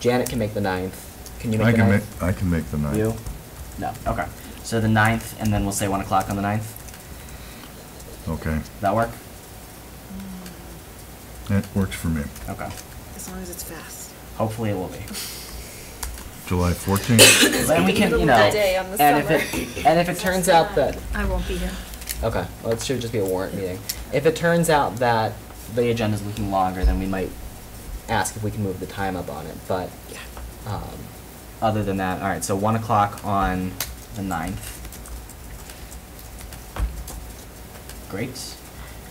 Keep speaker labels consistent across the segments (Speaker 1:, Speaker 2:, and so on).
Speaker 1: Janet can make the ninth. Can you make
Speaker 2: I
Speaker 1: the
Speaker 2: can make,
Speaker 1: ninth?
Speaker 2: I can make the ninth.
Speaker 3: You? No, okay. So the ninth, and then we'll say one o'clock on the ninth.
Speaker 2: Okay,
Speaker 3: Does that work?
Speaker 2: that works for me.
Speaker 3: Okay.
Speaker 4: As long as it's fast.
Speaker 3: Hopefully it will be.
Speaker 2: July fourteenth,
Speaker 3: Then we can, you know,
Speaker 5: Day on the
Speaker 1: And if
Speaker 5: summer.
Speaker 1: it, and if it turns out that,
Speaker 4: I won't be here.
Speaker 1: okay, well, it should just be a warrant meeting. If it turns out that
Speaker 3: the agenda's looking longer than we might.
Speaker 1: ask if we can move the time up on it, but, um,
Speaker 3: Other than that, all right. So one o'clock on the ninth. Great.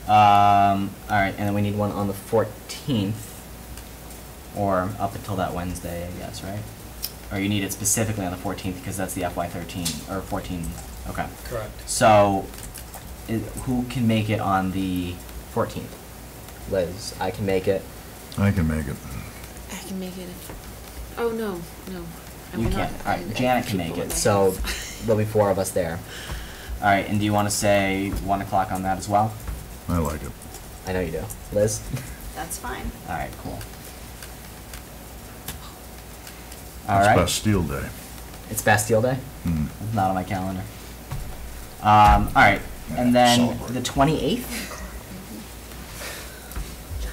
Speaker 3: Um, all right, and then we need one on the fourteenth, or up until that Wednesday, I guess, right? Or you need it specifically on the fourteenth because that's the FY thirteen or fourteen. Okay.
Speaker 6: Correct.
Speaker 3: So, i who can make it on the fourteenth?
Speaker 1: Liz, I can make it.
Speaker 2: I can make it.
Speaker 4: I can make it. if- Oh, no, no. I
Speaker 3: You
Speaker 4: will not.
Speaker 3: can't. All right,
Speaker 4: I- I
Speaker 3: Janet can
Speaker 4: keep
Speaker 3: make
Speaker 4: what
Speaker 3: it,
Speaker 4: I
Speaker 1: So
Speaker 4: have.
Speaker 1: there'll be four of us there.
Speaker 3: All right, and do you want to say one o'clock on that as well?
Speaker 2: I like it.
Speaker 1: I know you do. Liz?
Speaker 5: That's fine.
Speaker 3: All right, cool. All
Speaker 2: It's
Speaker 3: right,
Speaker 2: Bastille Day.
Speaker 1: It's Bastille Day?
Speaker 2: Hmm.
Speaker 3: It's not on my calendar. Um, all right, and
Speaker 2: Yeah,
Speaker 3: then
Speaker 2: celebrate.
Speaker 3: the twenty eighth.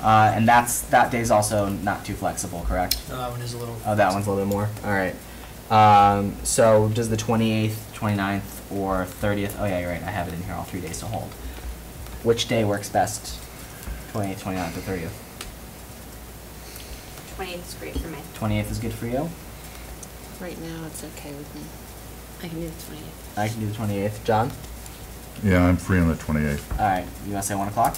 Speaker 3: Uh, and that's that day's also not too flexible, correct?
Speaker 6: No, that one is Um, a little.
Speaker 3: Oh, that one's
Speaker 1: One's a
Speaker 3: a
Speaker 1: little bit more. All right. Um, so does the 28th,
Speaker 3: 29th, or thirtieth. Oh yeah, you're right. I have it in here. All three days to hold. Which day works best? 28th, 29th, or thirtieth.
Speaker 5: 28th is great for me.
Speaker 3: Twenty-eighth is good for you.
Speaker 4: Right now, it's okay with me. I can do the twentieth.
Speaker 3: I can do the twenty-eighth.
Speaker 1: John?
Speaker 2: Yeah, I'm free on the twenty-eighth,
Speaker 3: All right, you want to say one o'clock?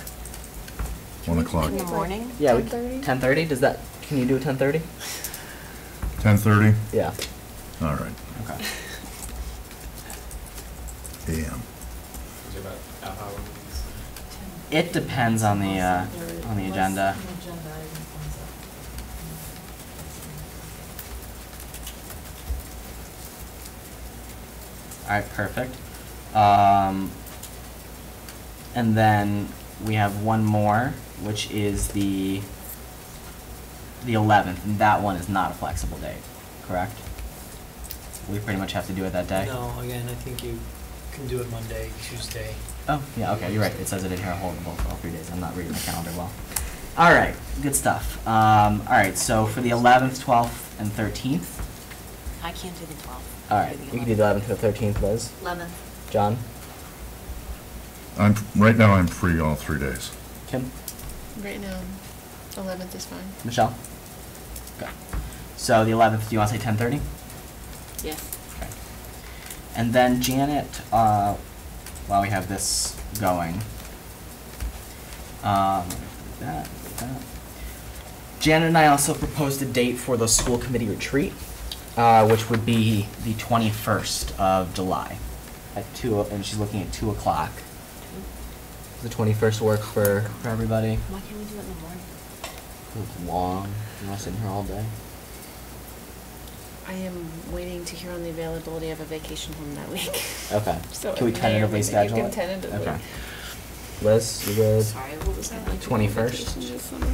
Speaker 2: one o'clock.
Speaker 5: In the morning?
Speaker 1: Yeah. we-
Speaker 5: 10:30?
Speaker 1: 10:30? Does that, can you do 10:30?
Speaker 2: Ten thirty?
Speaker 1: Yeah.
Speaker 2: All right,
Speaker 3: Okay.
Speaker 2: AM.
Speaker 3: It depends on the uh, on the agenda. All right, perfect. Um, and then we have one more, which is the the eleventh, and that one is not a flexible date, correct? We pretty much have to do it that day.
Speaker 6: No, again, I think you can do it Monday, Tuesday.
Speaker 3: Oh, yeah, okay, you're right. It says it in here, hold on, all three days. I'm not reading the calendar well. All right, good stuff. Um, all right, so for the 11th, 12th, and 13th,
Speaker 4: I can't do the twelfth.
Speaker 3: All right,
Speaker 1: You can do the 11th to the 13th, Liz.
Speaker 5: 11th.
Speaker 1: John?
Speaker 2: I'm, right now I'm free all three days.
Speaker 3: Kim,
Speaker 4: Right now, eleventh is fine.
Speaker 3: Michelle? Okay. So the 11th, do you want to say 10:30?
Speaker 4: Yes.
Speaker 3: Okay. And then Janet, uh, while we have this going, um, that, that. Janet and I also proposed a date for the school committee retreat, uh, which would be the twenty-first of July at two, o- and she's looking at two o'clock
Speaker 1: The 21st work for,
Speaker 3: for everybody.
Speaker 4: Why can't we do it in the morning?
Speaker 3: It's long, you want to sit in here all day?
Speaker 4: I am waiting to hear on the availability of a vacation home that week.
Speaker 3: Okay.
Speaker 5: So
Speaker 3: Can we
Speaker 5: it may or
Speaker 3: tentatively
Speaker 5: may not- you
Speaker 3: schedule it?
Speaker 5: can tentatively.
Speaker 3: Okay.
Speaker 1: Liz, you good?
Speaker 4: Sorry, what was that? like?
Speaker 1: 21st?
Speaker 4: Vacation this summer?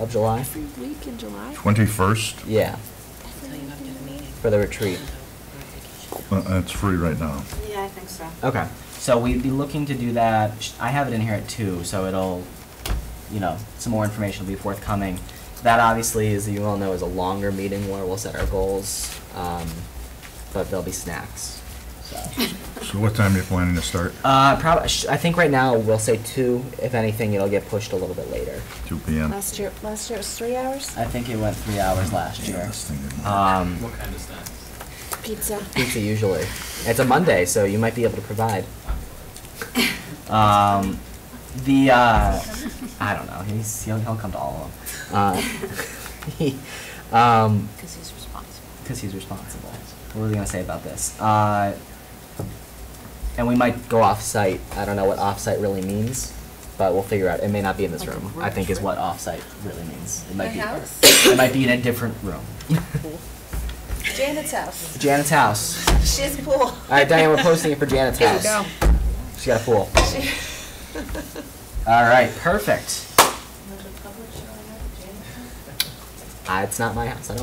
Speaker 1: Of July?
Speaker 4: Every week in July?
Speaker 2: Twenty-first,
Speaker 1: Yeah,
Speaker 4: Until you have to get a meeting.
Speaker 1: for the retreat.
Speaker 2: that's free right now.
Speaker 5: Yeah, I think so.
Speaker 3: Okay, so we'd be looking to do that, sh- I have it in here at two, so it'll, you know, some more information will be forthcoming.
Speaker 1: That obviously, as you all know, is a longer meeting where we'll set our goals, um, but there'll be snacks.
Speaker 2: So
Speaker 1: So,
Speaker 2: what time are you planning to start?
Speaker 1: uh, probably, I think right now we'll say two. If anything, it'll get pushed a little bit later.
Speaker 2: Two PM.
Speaker 4: Last year, last year it was three hours?
Speaker 3: I think it went three hours last
Speaker 2: Yeah,
Speaker 3: year.
Speaker 2: this thing didn't work.
Speaker 3: Um,
Speaker 6: kind of snacks?
Speaker 4: Pizza.
Speaker 1: Pizza usually. It's a Monday, so you might be able to provide.
Speaker 3: um, the, uh, I don't know, he's, he'll, he'll come to all of them.
Speaker 1: Uh, um,
Speaker 4: Because he's responsible.
Speaker 3: Because he's responsible. What were we gonna say about this? Uh, and we might
Speaker 1: go off-site. I don't know what off-site really means, but we'll figure out. It may not be in this
Speaker 4: Like a
Speaker 1: room. I
Speaker 4: room
Speaker 1: think is
Speaker 4: trip?
Speaker 1: what off-site really means.
Speaker 3: It might be.
Speaker 5: house?
Speaker 3: It might be in a different room.
Speaker 5: Janet's house.
Speaker 1: Janet's house.
Speaker 5: She has a pool.
Speaker 1: All right, Diane, we're posting it for Janet's
Speaker 5: There you
Speaker 1: house.
Speaker 5: go.
Speaker 1: She got a pool.
Speaker 3: All right, perfect.
Speaker 1: Uh, it's not my house. I don't